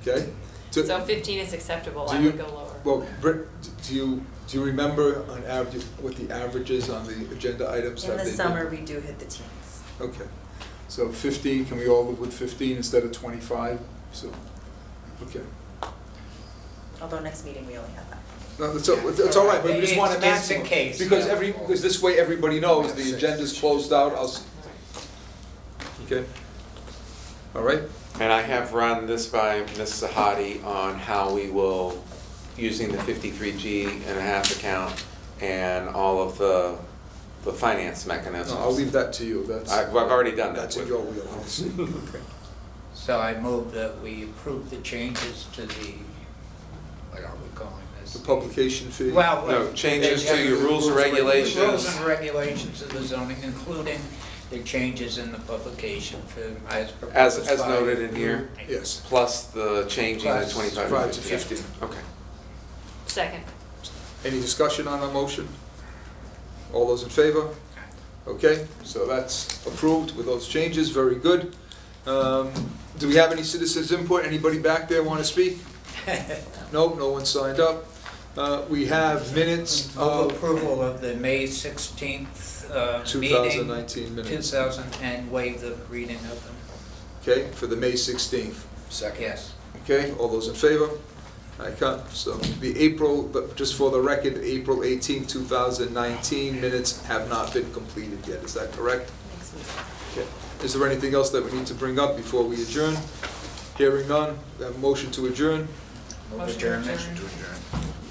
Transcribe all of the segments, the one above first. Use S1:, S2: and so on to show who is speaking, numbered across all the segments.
S1: okay? So-
S2: So fifteen is acceptable,
S1: Do
S2: I
S1: you-
S2: would go lower.
S1: Well, Britt, d- do you, do you remember on average, what the averages on the agenda items have
S3: In
S1: they
S3: the
S1: been?
S3: summer, we do hit the teens.
S1: Okay, so fifteen, can we all live with fifteen instead of twenty-five? So, okay.
S3: Although next meeting, we only have that.
S1: No, that's, all- that's all right, but we just want a
S4: It's- it's the
S1: maximum.
S4: case,
S1: Because
S4: yeah.
S1: every, because this way everybody knows, the agenda's closed out, I'll, s- okay? All right?
S5: And I have run this by Ms. Sahadi on how we will, using the fifty-three G and a half account and all of the, the finance mechanisms.
S1: No, I'll leave that to you, that's.
S5: I've, I've already done that.
S1: That's in
S5: with-
S1: your wheelhouse. Okay.
S4: So I move that we approve the changes to the, what are we calling this?
S1: The publication fee.
S4: Well.
S5: No,
S4: uh,
S5: changes to your
S4: the-
S5: rules and
S4: Rules
S5: regulations.
S4: and regulations of the zoning, including the changes in the publication for, as proposed
S5: As, as
S4: by-
S5: noted in here,
S1: Yes,
S5: plus the changing the
S4: Plus
S5: twenty-five.
S1: five to
S5: yeah.
S1: fifteen.
S5: Okay.
S2: Second,
S1: Any discussion on our motion? All those in favor? Okay, so that's approved with those changes, very good. Um, Do we have any citizens input? Anybody back there want to speak? No, no one signed up. Uh, We have minutes
S4: Move
S1: of
S4: approval of the May sixteenth, uh, meeting,
S1: 2019
S4: two
S1: minutes,
S4: thousand and waive the reading of them.
S1: okay, for the May 16th.
S4: Yes.
S1: Okay, all those in favor? I can't, so the April, but just for the record, April 18, 2019 minutes have not been completed yet, is that correct?
S3: Next meeting.
S1: Okay. Is there anything else that we need to bring up before we adjourn? Hearing none, we have a motion to adjourn.
S4: Move
S2: Motion to
S4: adjournment.
S2: adjourn.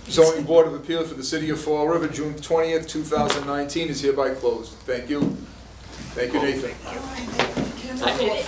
S1: Zoning Board of Appeal for the City of Fall River, June 20th, 2019 is hereby closed. Thank you. Thank you, Nathan.
S2: I did it.